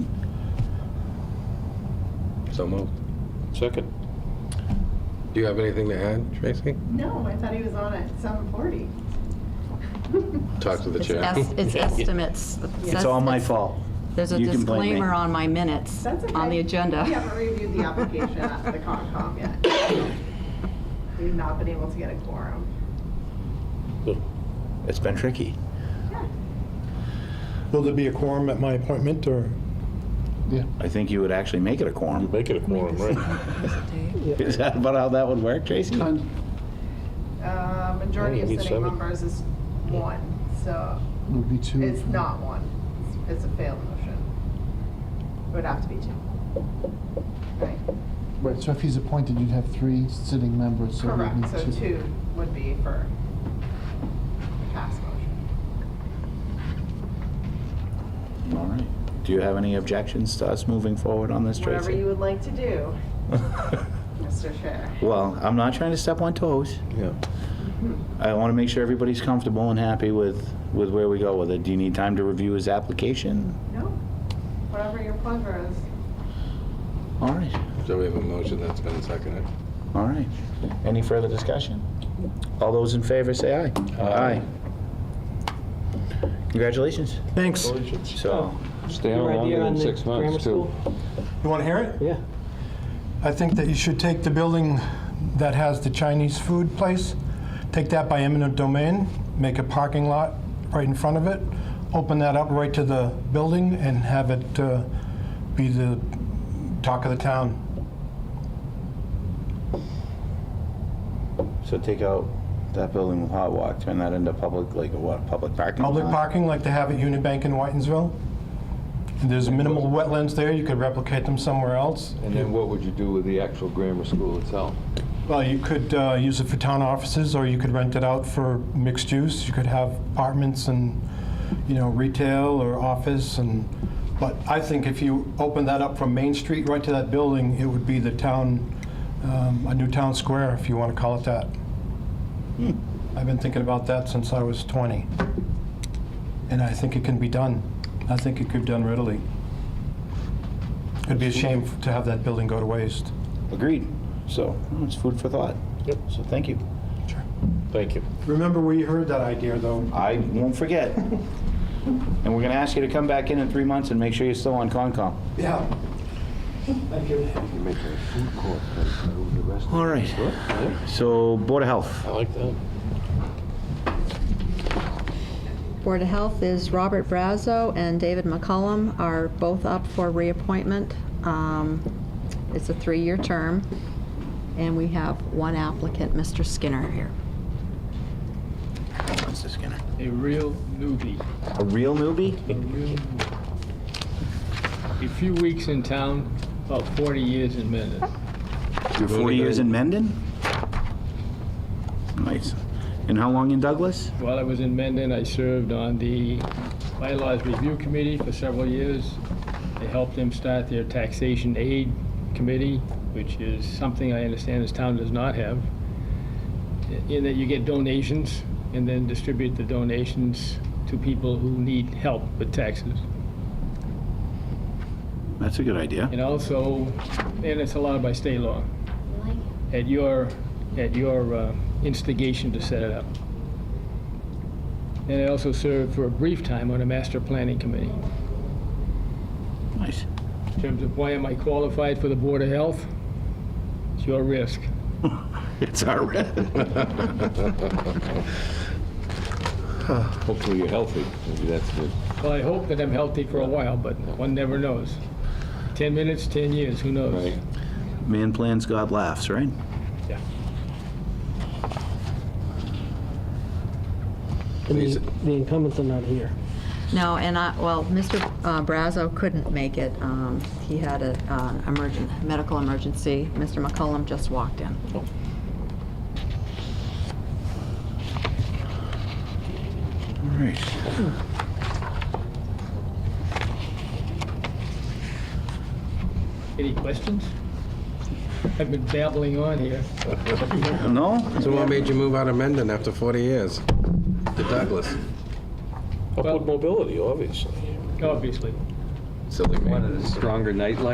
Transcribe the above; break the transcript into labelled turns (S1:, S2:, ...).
S1: So moved.
S2: Second.
S1: Do you have anything to add, Tracy?
S3: No, I thought he was on at seven forty.
S1: Talk to the
S4: It's
S1: chair.
S4: es- It's estimates.
S5: It's all my fault.
S4: There's a
S5: You can blame me.
S4: disclaimer on my minutes,
S3: That's okay.
S4: on the agenda.
S3: We haven't reviewed the application at the Concom yet. We've not been able to get a quorum.
S5: It's been tricky.
S3: Yeah.
S6: Will there be a quorum at my appointment, or?
S5: I think you would actually make it a
S2: You
S5: quorum.
S2: make it a quorum, right?
S5: Is that about how that would work, Tracy?
S3: Uh, Majority
S2: Oh,
S3: of
S2: we need
S3: sitting
S2: seven.
S3: members is one, so
S7: Would be two.
S3: it's not one. It's it's a failed motion. It would have to be two. Right,
S7: Right, so if he's appointed, you'd have three sitting members, so you'd
S3: correct, so
S7: need two.
S3: two would be for the pass motion.
S5: All right. Do you have any objections to us moving forward on this,
S3: Whatever you
S5: Tracy?
S3: would like to do, Mr. Chair.
S5: Well, I'm not trying to step on toes.
S1: Yeah.
S5: I want to make sure everybody's comfortable and happy with, with where we go with it. Do you need time to review his application?
S3: No, whatever your pleasure is.
S5: All right,
S1: So we have a motion that's been seconded.
S5: all right. Any further discussion? All those in favor, say aye. Aye. Congratulations.
S6: Thanks.
S5: So,
S2: Stay
S8: Your
S2: on
S8: idea
S2: longer
S8: on
S2: than
S8: the
S2: six
S8: grammar
S2: months, too.
S8: school?
S6: You want to hear it?
S8: Yeah.
S6: I think that you should take the building that has the Chinese food place, take that by eminent domain, make a parking lot right in front of it, open that up right to the building, and have it uh, be the talk of the town.
S5: so take out that building with hot walk, turn that into public, like, what, public parking?
S6: Public
S5: lot?
S6: parking like they have at Unibank in Whitensville. There's minimal wetlands there, you could replicate them somewhere else.
S2: And then what would you do with the actual grammar school itself?
S6: Well, you could uh, use it for town offices, or you could rent it out for mixed use. You could have apartments and, you know, retail or office and, but I think if you open that up from Main Street right to that building, it would be the town, um, a new town square, if you want to call it that. Hmm. I've been thinking about that since I was 20. And I think it can be done. I think it could be done readily. It'd be a shame to have that building go to waste.
S5: Agreed. So, well, it's food for thought. Yep. So thank you.
S2: Thank you.
S6: Remember where you heard that idea, though?
S5: I won't forget. And we're gonna ask you to come back in in three months and make sure you're still on Concom.
S6: Yeah. Thank you.
S2: You make a food court, the rest.
S5: All right. So, Board of Health.
S2: I like that.
S4: Board of Health is Robert Brazo and David McCollum are both up for reappointment. Um, It's a three-year term, and we have one applicant, Mr. Skinner here.
S5: Mr. Skinner.
S9: A real newbie.
S5: A real newbie?
S9: A real newbie. A few weeks in town, about 40 years in Mendon.
S5: You're 40 years in Mendon? Nice. And how long in Douglas?
S9: While I was in Mendon, I served on the bylaws review committee for several years. I helped them start their taxation aid committee, which is something I understand this town does not have, in that you get donations and then distribute the donations to people who need help with taxes.
S5: That's a good idea.
S9: And also, and it's allowed by state law. At your, at your uh, instigation to set it up. And I also served for a brief time on a master planning committee.
S5: Nice.
S9: In terms of why am I qualified for the Board of Health? It's your risk.
S5: It's our
S2: Hopefully you're healthy. Maybe that's good.
S9: Well, I hope that I'm healthy for a while, but one never knows. 10 minutes, 10 years, who knows?
S2: Right.
S5: Man plans, God laughs, right?
S9: Yeah.
S8: And the the incumbents are not here.
S4: No, and I, well, Mr. uh, Brazo couldn't make it. Um, He had a uh, emergen medical emergency. Mr. McCollum just walked in.
S5: All right.
S9: Any questions? I've been babbling on here.
S5: No?
S1: So what made you move out of Mendon after 40 years? To Douglas.
S2: Upward mobility, obviously.
S9: Obviously.
S1: Silly man.
S2: Stronger nightlife?